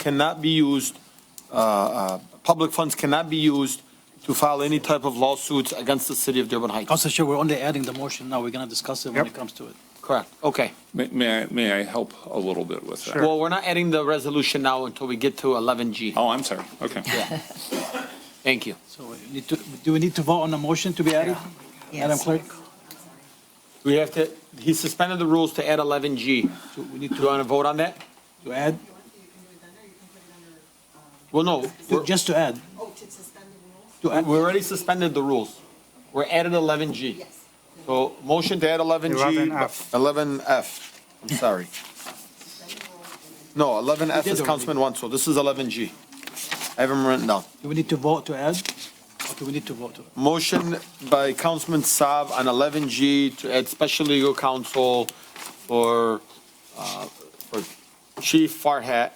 cannot be used, uh, uh, public funds cannot be used to file any type of lawsuits against the city of Dearborn Heights. Council Chair, we're only adding the motion now. We're going to discuss it when Yep. it comes to it. Correct, okay. May- May I, may I help a little bit with that? Well, we're not adding the resolution now until we get to 11G. Oh, I'm sorry. Okay. Thank you. So we need to, do we need to vote on the motion to be added? Madam Clerk? We have to, he suspended the rules to add 11G. So we need Do you want to vote on that? to add, Well, no, to- we're- just to add, Oh, to suspend the rules? to add, we already suspended the rules. We're added 11G. Yes. So motion to add 11G. 11F. 11F, I'm sorry. No, 11F We did is already. Councilman Wanso, this is 11G. I have them written down. do we need to vote to add? Or do we need to vote to? Motion by Councilman Saab on 11G to add special legal counsel for, uh, for Chief Farhat,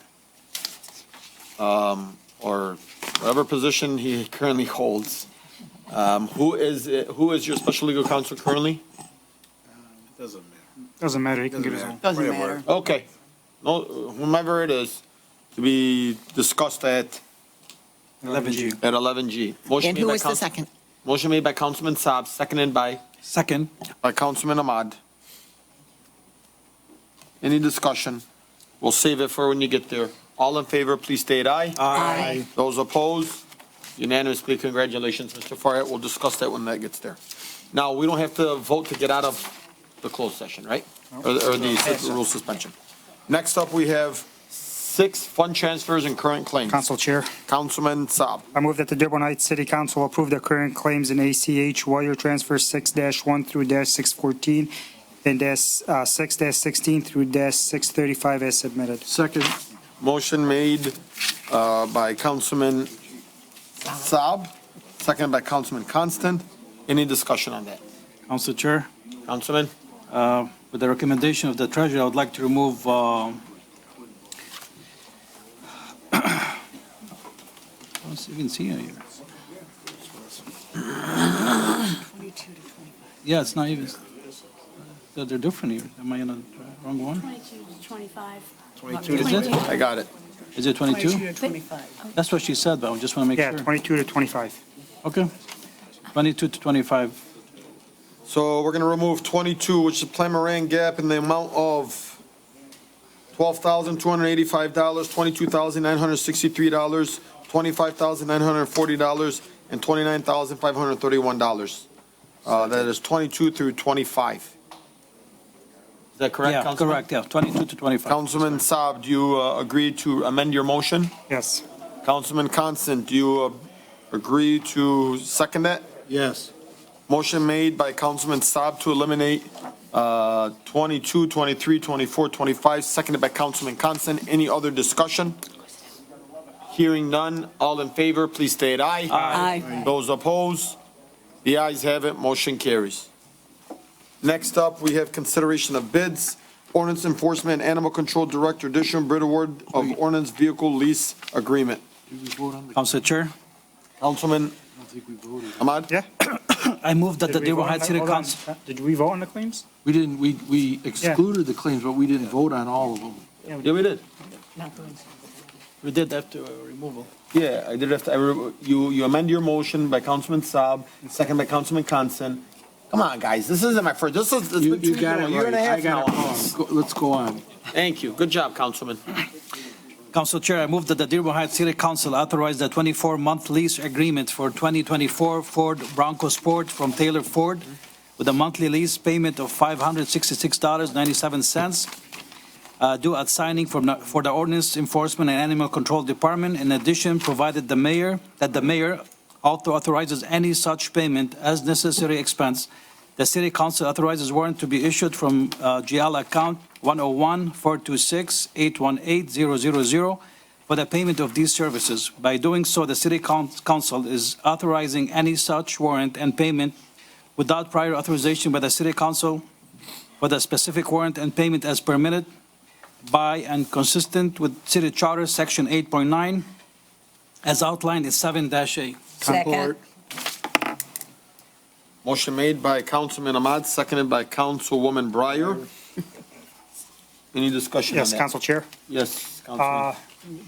um, or whatever position he currently holds. Um, Who is, who is your special legal counsel currently? Doesn't matter. Doesn't matter, he can give his own. Doesn't matter. Okay, no, whomever it is, to be discussed at, 11G. at 11G. Motion And made who by is the Council- second? Motion made by Councilman Saab, seconded by Second, by Councilman Ahmad. Any discussion? We'll save it for when you get there. All in favor, please state aye. Aye. Those opposed? Unanimously, congratulations, Mr. Farhat. We'll discuss that when that gets there. Now, we don't have to vote to get out of the closed session, right? Or or the rule suspension. Next up, we have six fund transfers and current claims. Council Chair, Councilman Saab. I move that the Dearborn Heights City Council approve the current claims in ACH wire transfer six one through dash six fourteen and dash, uh, six dash sixteen through dash six thirty-five as submitted. second, Motion made uh, by Councilman Saab, seconded by Councilman Constant. Any discussion on that? Council Chair. Councilman? Uh, With the recommendation of the treasurer, I would like to remove um, I don't even see it here. Twenty-two to twenty-five. Yeah, it's not even, they're they're different here. Am I on the wrong one? 22 to 25. Is it? I got it. Is it 22? to 25. That's what she said, but I just want to make Yeah, sure. twenty-two to twenty-five. Okay. 22 to 25. So we're going to remove 22, which is Plan Moran Gap in the amount of $12,285, $22,963, $25,940, and $29,531. Uh, That is 22 through 25. Is that correct, Yeah, Councilman? correct, yeah, 22 to 25. Councilman Saab, do you uh, agree to amend your motion? Yes. Councilman Constant, do you uh, agree to second that? Yes. Motion made by Councilman Saab to eliminate uh, 22, 23, 24, 25, seconded by Councilman Constant. Any other discussion? Hearing none, all in favor, please state aye. Aye. Those opposed? The ayes have it, motion carries. Next up, we have consideration of bids. Ordinance Enforcement and Animal Control Director Dishon Bid Award of Ordinance Vehicle Lease Agreement. Council Chair, Councilman Ahmad? Yeah? I move that the Did we Dearborn vote on Heights that? City Hold on. Council, Did we vote on the claims? We didn't, we, we excluded the claims, but we didn't vote on all of them. Yeah, we did. we did after uh, removal. Yeah, I did have to, I re- you, you amend your motion by Councilman Saab, second by Councilman Constant. Come on, guys, this isn't my first, this is, it's You, been you two, got a it year and right. a I half got it now. wrong. Go- Let's go on. Thank you, good job, Councilman. Council Chair, I move that the Dearborn Heights City Council authorize the 24-month lease agreement for 2024 Ford Bronco Sport from Taylor Ford with a monthly lease payment of $566.97 uh, due at signing from the- for the Ordinance Enforcement and Animal Control Department. In addition, provided the mayor, that the mayor author- authorizes any such payment as necessary expense, the City Council authorizes warrant to be issued from uh, GL account 101-426-818-000 for the payment of these services. By doing so, the City Coun- Council is authorizing any such warrant and payment without prior authorization by the City Council for the specific warrant and payment as permitted by and consistent with City Charter, Section 8.9, as outlined in 7-A. Second. Motion made by Councilman Ahmad, seconded by Councilwoman Breyer. Any discussion on Yes, that? Council Chair. Yes, Councilman. Uh,